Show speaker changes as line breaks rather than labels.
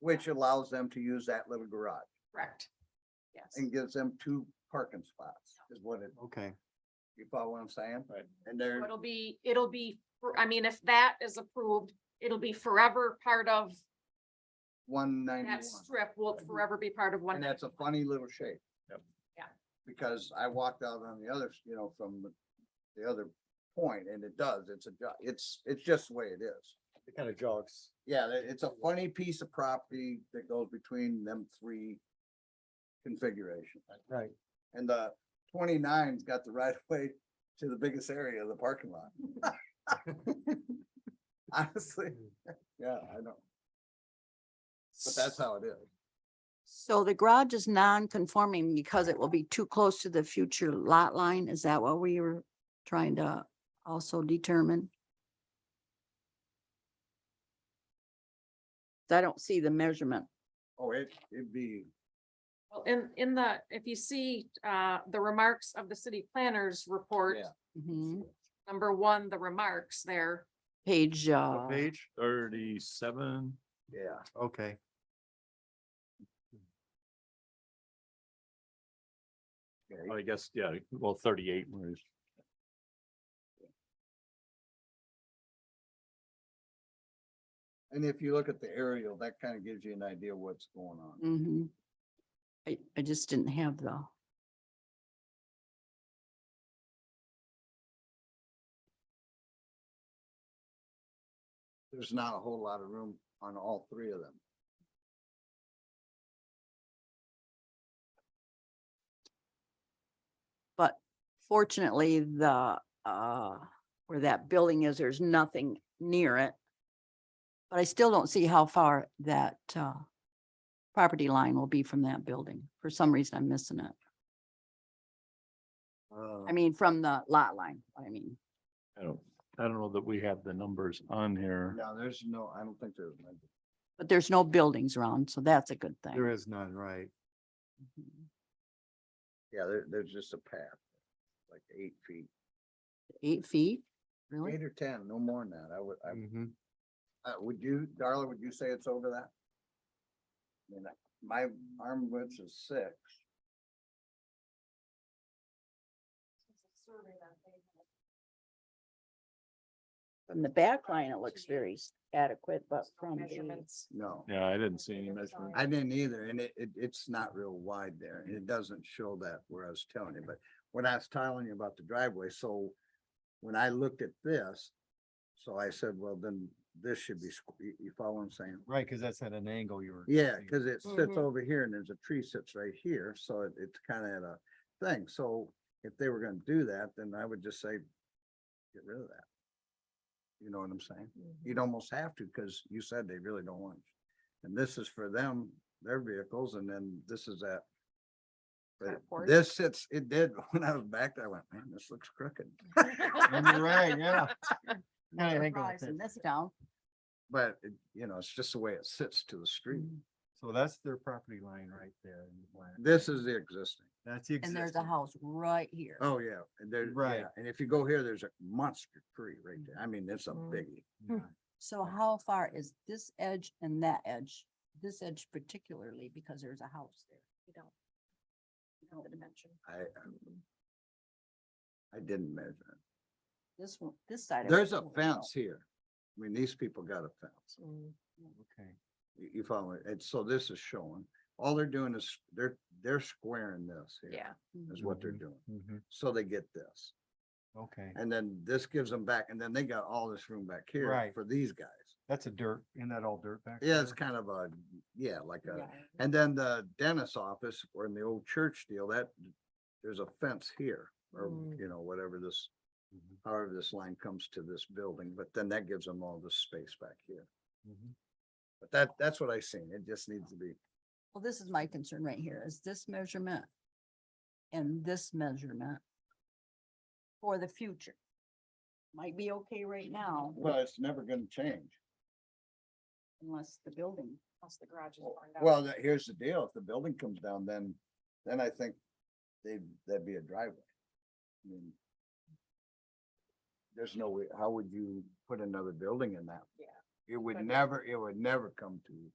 which allows them to use that little garage
correct. Yes.
and gives them two parking spots is what it,
Okay,
you follow what I'm saying?
Right.
And they're,
It'll be, it'll be, for- I mean, if that is approved, it'll be forever part of
one
that
ninety-one.
strip will forever be part of one.
And that's a funny little shape.
Yep.
Yeah.
Because I walked out on the other, you know, from the- the other point and it does, it's a, ju- it's, it's just the way it is.
It kind of jogs.
Yeah, it- it's a funny piece of property that goes between them three configurations.
right.
And the 29's got the right of way to the biggest area of the parking lot. Honestly, yeah, I know, but that's how it is.
So the garage is non-conforming because it will be too close to the future lot line? Is that what we were trying to also determine? 'Cause I don't see the measurement.
Oh, it, it'd be,
Well, In, in the, if you see, uh, the remarks of the city planners report,
Yeah. Mm-hmm.
Mhm.
number one, the remarks there.
Page,
What
uh,
Page,
Thirty-seven.
yeah.
okay.
Well, I guess, yeah, well, thirty-eight was.
And if you look at the aerial, that kind of gives you an idea what's going on.
mhm. I, I just didn't have the,
There's not a whole lot of room on all three of them.
but fortunately, the, uh, where that building is, there's nothing near it. But I still don't see how far that, uh, property line will be from that building. For some reason, I'm missing it. I
Uh,
mean, from the lot line, I mean,
I don't, I don't know that we have the numbers on here.
No, there's no, I don't think there's. many.
but there's no buildings around, so that's a good
There
thing.
is none, right?
Mhm.
Yeah, there, there's just a path, like eight feet,
Eight feet, really?
eight or ten, no more than that. I would, I,
Mm-hmm.
uh, would you, Darla, would you say it's over that? I mean, I- my arm width is six.
From the back line, it looks very s- adequate, but from the,
Measurements.
No,
Yeah, I didn't see any measurement.
I didn't either, and it, it, it's not real wide there, and it doesn't show that where I was telling you, but when I was telling you about the driveway, so when I looked at this, so I said, well, then this should be, squ- you, you follow what I'm saying?
Right, because that's at an angle you were.
Yeah,
seeing.
cause it
Mhm.
sits over here and there's a tree sits right here, so it, it's kinda at a thing, so if they were gonna do that, then I would just say, get rid of that. You know what I'm saying? You'd almost have to, cause you said they really don't want. it. And this is for them, their vehicles, and then this is that. But
Carport.
this sits, it did, when I was back there, I went, man, this looks crooked,
And You're right, yeah. Yeah, I think about
Surprise in
that.
this town.
but it, you know, it's just the way it sits to the street.
Mm.
So that's their property line right there. in the black.
This is the existing.
That's the.
And there's a
existing.
house right here.
Oh, yeah, and there,
Right.
yeah, and if you go here, there's a monster tree right there. I mean, it's a
Mm-hmm.
Mhm.
biggie.
Yeah.
So how far is this edge and that edge? This edge particularly because there's a house there.
You don't- you don't dimension.
I, um, I didn't measure. it.
This one, this side. of it,
There's
I
a
don't know.
fence here. I mean, these people got a fence.
mm-hmm.
hmm.
Okay.
You, you follow it? And so this is showing, all they're doing is they're, they're squaring this here.
Yeah,
Is what they're doing.
Mhm.
So they get this.
Okay,
And then this gives them back, and then they got all this room back here
Right.
for these guys.
that's a dirt, isn't that all dirt back?
Yeah, it's
there?
kind of a, yeah, like a,
Yeah.
And then the dentist's office or in the old church deal, that, there's a fence here or,
Mm.
you know, whatever this,
Mhm,
however this line comes to this building, but then that gives them all this space back here.
mhm.
But that, that's what I seen. It just needs to be,
Well, this is my concern right here, is this measurement and this measurement for the future. Might be okay right now
well, it's never gonna change.
unless the building,
plus the garage is
Well-
burned out.
Well, that- here's the deal. If the building comes down, then, then I think they, that'd be a driveway. I mean, There's no way, how would you put another building in that?
Yeah.
It would
But-
never, it would never come to